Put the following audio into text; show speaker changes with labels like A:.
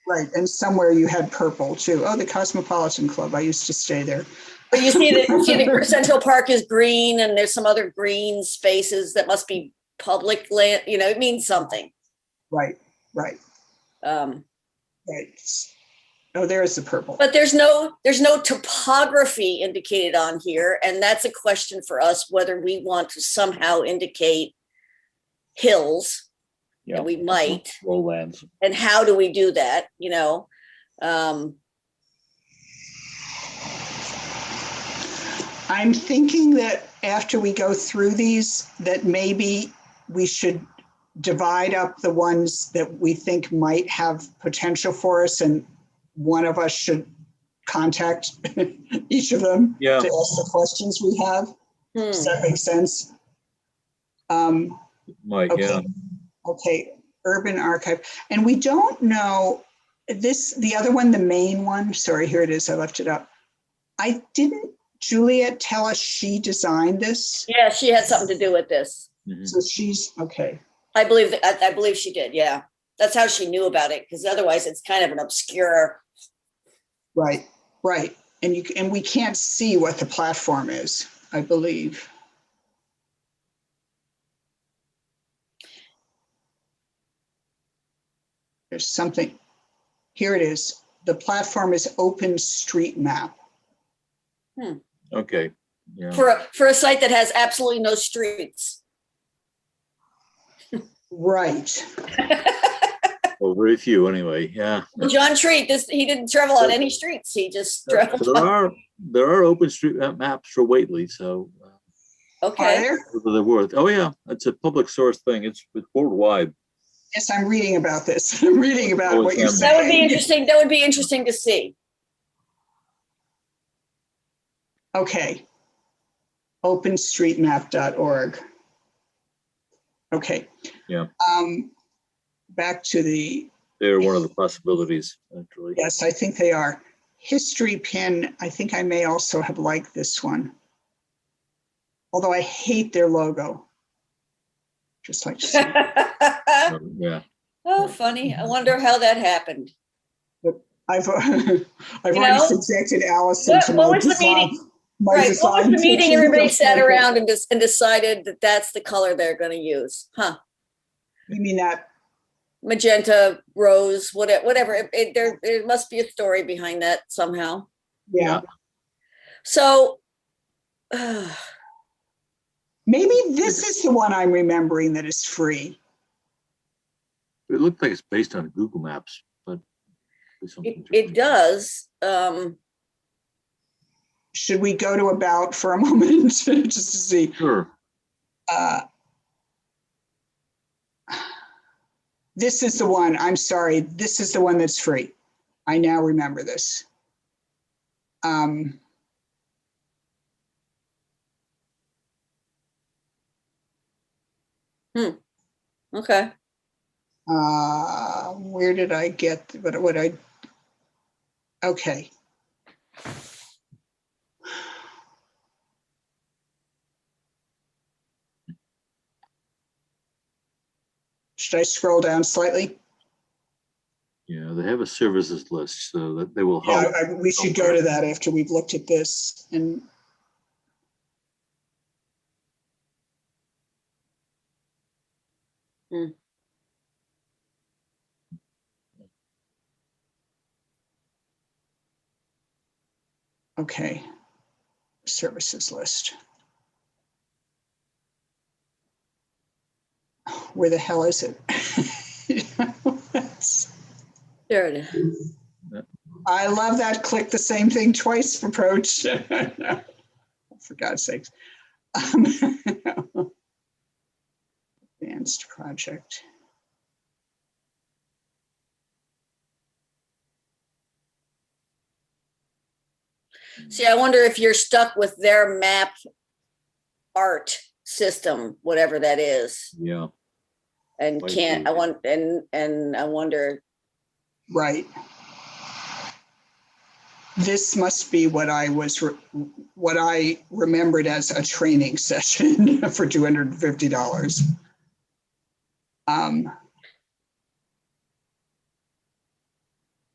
A: Right, and somewhere you had purple too. Oh, the Cosmopolitan Club. I used to stay there.
B: But you see that, you see that Central Park is green and there's some other green spaces that must be public land, you know, it means something.
A: Right, right,
B: Um,
A: right. Oh, there is the purple.
B: but there's no, there's no topography indicated on here. And that's a question for us, whether we want to somehow indicate hills.
C: Yeah.
B: And we might,
C: lowlands.
B: and how do we do that, you know? Um,
A: I'm thinking that after we go through these, that maybe we should divide up the ones that we think might have potential for us and one of us should contact each of them
C: Yeah.
A: to ask the questions we have.
B: hmm.
A: Does that make sense? Um,
C: Mike,
A: Okay.
C: yeah.
A: Okay, Urban Archive. And we don't know, this, the other one, the main one, sorry, here it is, I left it up. I didn't Juliet tell us she designed this?
B: Yeah, she had something to do with this.
C: Mhm.
A: So she's, okay,
B: I believe, I, I believe she did, yeah. That's how she knew about it, because otherwise it's kind of an obscure,
A: right, right. And you, and we can't see what the platform is, I believe. There's something, here it is. The platform is Open Street Map.
C: Okay, yeah.
B: for, a for a site that has absolutely no streets.
A: Right.
C: Well, very few anyway, yeah.
B: John Treat, this, he didn't travel on any streets, he just drove,
C: There are, there are open street map- maps for Whately, so uh,
A: Are
B: okay.
A: there?
C: whether they're worth, oh yeah, it's a public source thing. It's it's worldwide.
A: Yes, I'm reading about this. I'm reading about what you're
C: Always
B: That would be
A: saying.
B: interesting, that would be interesting to see.
A: Okay. Openstreetmap.org. Okay.
C: Yeah.
A: Um, back to the,
C: They're one of the possibilities, actually.
A: yes, I think they are. History pin, I think I may also have liked this one. Although I hate their logo. Just like,
C: So, Yeah,
B: Oh, funny, I wonder how that happened.
A: I've, I've already
B: know?
A: subjected Allison
B: What-
A: to
B: what
A: my
B: was the
A: design.
B: meeting?
A: my
B: Right, what
A: design
B: was the meeting
A: teacher
B: everybody
A: just
B: sat
A: like it.
B: around and dis- and decided that that's the color they're gonna use, huh?
A: You mean that
B: Magenta, rose, whatever, whatever, It- it- there, there must be a story behind that somehow,
A: Yeah,
C: Yeah.
B: so.
A: maybe this is the one I'm remembering that is free.
C: it looked like it's based on Google Maps, but. it's something
B: It, it
C: different.
B: does, um,
A: Should we go to about for a moment just to see?
C: Sure.
A: Uh, This is the one, I'm sorry, this is the one that's free. I now remember this. Um,
B: okay,
A: uh, Where did I get, what, what I, okay. Should I scroll down slightly?
C: Yeah, they have a services list, so that they will
A: Yeah,
C: help.
A: I- I- we should go to that after we've looked at this and.
B: Hmm.
A: Okay, services list. Where the hell is it?
B: there it is,
A: I love that click the same thing twice approach. For God's sakes. Um, Advanced project.
B: see, I wonder if you're stuck with their map. Art system, whatever that is,
C: Yeah,
B: and
C: Might
B: can't,
C: be.
B: I want, and, and I wonder,
A: Right. This must be what I was, re- what I remembered as a training session for $250. Um,